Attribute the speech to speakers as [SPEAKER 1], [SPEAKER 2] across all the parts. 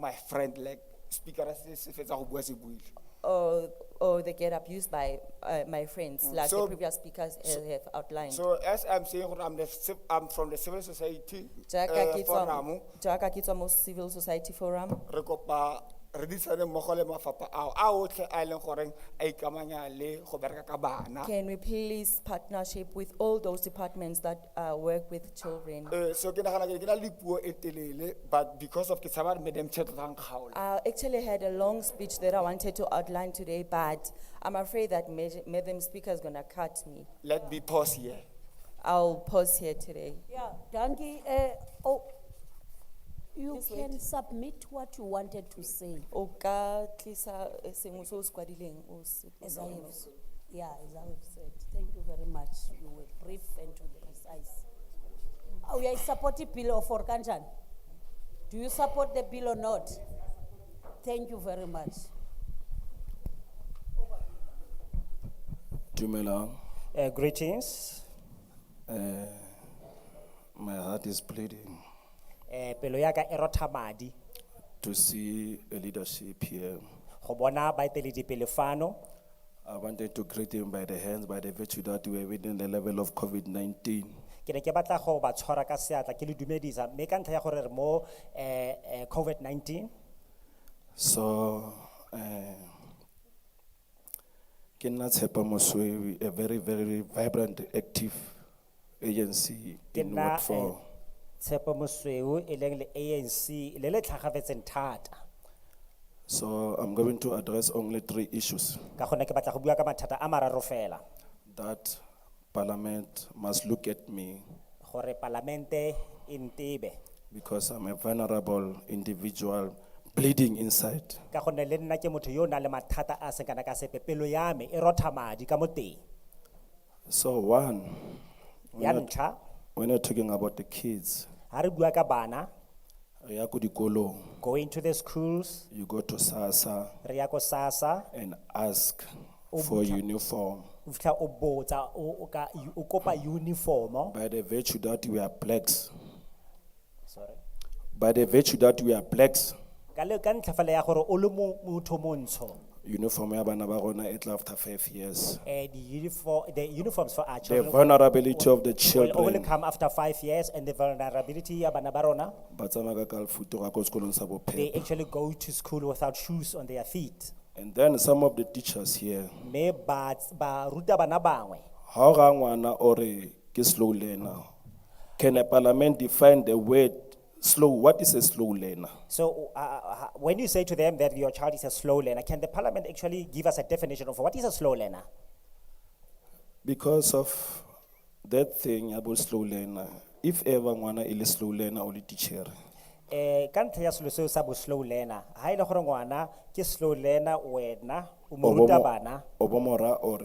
[SPEAKER 1] my friend like speaker a se se fetsa go bua se buile
[SPEAKER 2] or, or they get abused by uh, my friends, like
[SPEAKER 1] Mm. So-
[SPEAKER 2] the previous speakers uh, have outlined.
[SPEAKER 1] so as i'm saying gore i'm the civ- i'm from the civil society
[SPEAKER 2] Jaaka
[SPEAKER 1] eh,
[SPEAKER 2] ke tswa-
[SPEAKER 1] forum
[SPEAKER 2] jaaka ke tswa mo Civil Society Forum,
[SPEAKER 1] re kopa re disane mmogo le mafapha ao a otlhe a e leng goreng a ikamanya le go bereka ka bana
[SPEAKER 2] can we please partnership with all those departments that uh, work with children?
[SPEAKER 1] Eh, so ke nagana ke ke na le puo e telele but because of ke tshaba re madam chair tlang kgaola
[SPEAKER 2] I actually had a long speech that I wanted to outline today, but I'm afraid that Ma- Madam Speaker is gonna cut me.
[SPEAKER 1] let me pause here
[SPEAKER 2] I'll pause here today.
[SPEAKER 3] Yeah, Danki, eh, oh, you
[SPEAKER 2] Just wait.
[SPEAKER 3] can submit what you wanted to say.
[SPEAKER 2] O ka tlisa, eh, sengwe se o se kwadileng, o se-
[SPEAKER 3] As I have, s- yeah, as I have said, thank you very much, you were brief and to the precise. Oh, yeah, support the bill of Orkanchan. Do you support the bill or not? Thank you very much.
[SPEAKER 4] Dumelang.
[SPEAKER 5] Uh, greetings.
[SPEAKER 4] Eh, my heart is bleeding
[SPEAKER 5] Eh, pelo ya ka e rotha madi
[SPEAKER 4] to see a leadership here.
[SPEAKER 5] go bona baeteledipele fano.
[SPEAKER 4] I wanted to greet him by the hands, by the virtue that we are within the level of COVID-19.
[SPEAKER 5] Ke ne ke batla go ba tshwara ka seatla ke le dumedisa mme ka ntlha ya gore re mo eh, eh, COVID-19
[SPEAKER 4] So, eh, Kenna Tsepa Moswewi, a very, very vibrant, active agency
[SPEAKER 5] ke
[SPEAKER 4] in
[SPEAKER 5] nna
[SPEAKER 4] Ward
[SPEAKER 5] eh,
[SPEAKER 4] Four.
[SPEAKER 5] Tshepo Mosweu e leng le ANC le le tlhagafetseng thata
[SPEAKER 4] So I'm going to address only three issues
[SPEAKER 5] ka gone ke batla go bua ka mathata a mararo fela
[SPEAKER 4] that Parliament must look at me
[SPEAKER 5] gore palamente e ntebe
[SPEAKER 4] because I'm a vulnerable individual bleeding inside.
[SPEAKER 5] ka gonne le nna ke motho yo o nang le mathata a a seng kana ka sepe pelo ya me e rotha madi ka mo teng
[SPEAKER 4] So one,
[SPEAKER 5] ya
[SPEAKER 4] when you're,
[SPEAKER 5] ntlha
[SPEAKER 4] when you're talking about the kids,
[SPEAKER 5] ga re bua ka bana
[SPEAKER 4] re ya ko dikolong,
[SPEAKER 5] going to the schools,
[SPEAKER 4] you go to SASA
[SPEAKER 5] Riako Sasa,
[SPEAKER 4] and ask for uniform.
[SPEAKER 5] ufika obota, o, oka, okopa uniform,
[SPEAKER 4] By the virtue that we are blacks,
[SPEAKER 5] sorry.
[SPEAKER 4] by the virtue that we are blacks,
[SPEAKER 5] Kale kan tafala ya horo olumu mutomonso,
[SPEAKER 4] uniform ya bana ba rona e tla after five years.
[SPEAKER 5] eh, the uniform, the uniforms for our
[SPEAKER 4] The
[SPEAKER 5] children.
[SPEAKER 4] vulnerability of the
[SPEAKER 5] Will only
[SPEAKER 4] children,
[SPEAKER 5] come after five years and the vulnerability ya bana ba rona,
[SPEAKER 4] ba tsamaya ka kalafuto ga ko sekolong sa
[SPEAKER 5] they
[SPEAKER 4] bophelo.
[SPEAKER 5] actually go to school without shoes on their feet.
[SPEAKER 4] And then some of the teachers here,
[SPEAKER 5] Me ba, ba ruta bana bangwe.
[SPEAKER 4] How ngwana or ke slow learner? Can a parliament define the word slow? What is a slow learner?
[SPEAKER 5] So uh, uh, when you say to them that your child is a slow learner, can the parliament actually give us a definition of what is a slow learner?
[SPEAKER 4] Because of that thing about slow learner, if ever ngwana is slow learner or teacher,
[SPEAKER 5] Eh, ka ntlha ya selo seo sa bo slow learner, ha e le gore ngwana ke slow learner wena, o mo ruta bana,
[SPEAKER 4] obomora or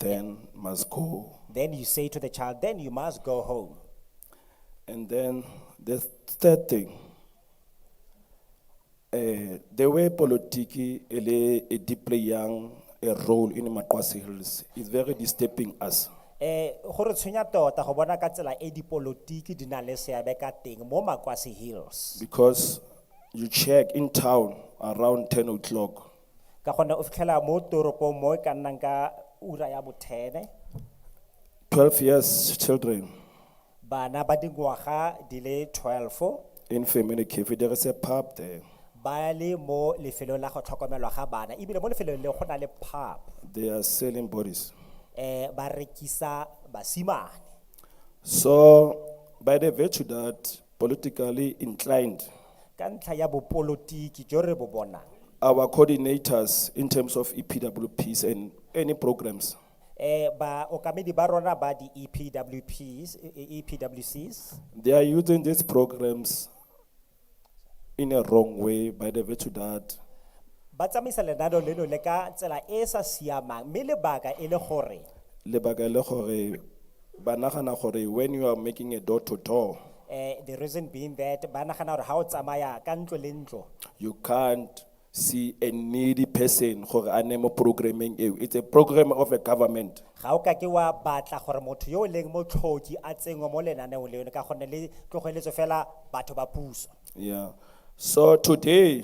[SPEAKER 4] then must go.
[SPEAKER 5] then you say to the child, then you must go home.
[SPEAKER 4] And then the third thing, eh, the way politiki ele e deeply young a e role in Makwasi Hills is very disturbing us.
[SPEAKER 5] Eh, gore tshwenya tota go bona ka tsela e dipolotiki di nang le seabe ka teng mo Makwasi Hills.
[SPEAKER 4] Because you check in town around ten o'clock,
[SPEAKER 5] Ka gonne o fitlhela mo toropong mo e ka nnang ka ura ya bothene,
[SPEAKER 4] twelve years children
[SPEAKER 5] bana ba dingwaga di le twelve,
[SPEAKER 4] in family cafe, there is a pub there.
[SPEAKER 5] ba le mo lefelong la go tlhokomelwa ga bana, ebile mo lefelong le go na le pub,
[SPEAKER 4] They are selling bodies.
[SPEAKER 5] eh, ba rekisa basimane.
[SPEAKER 4] So by the virtue that politically inclined,
[SPEAKER 5] ka ntlha ya bopolotiki jo re bo bonang
[SPEAKER 4] our coordinators in terms of E EPWPs and any programs,
[SPEAKER 5] eh ba okamedi ba rona ba di EPWPs e- e- EPWCs
[SPEAKER 4] they are using these programs in a wrong way by the virtue that
[SPEAKER 5] ba tsamaisa lenaneo leno le ka tsela e e sa siamang mme lebaka e le gore
[SPEAKER 4] lebaka le gore ba nagana gore when you are making a door to door,
[SPEAKER 5] eh the reason being that ba nagana gore ga o tsamaya ka ntlo le ntlo
[SPEAKER 4] you can't see a needy person gore a name programming eo it's a program of a government
[SPEAKER 5] ga o kake wa batla gore motho yo o leng motlhoki a tsenngwe mo lenaneong leno ka gonne le tlogeletso fela batho ba puso
[SPEAKER 4] yeah So today,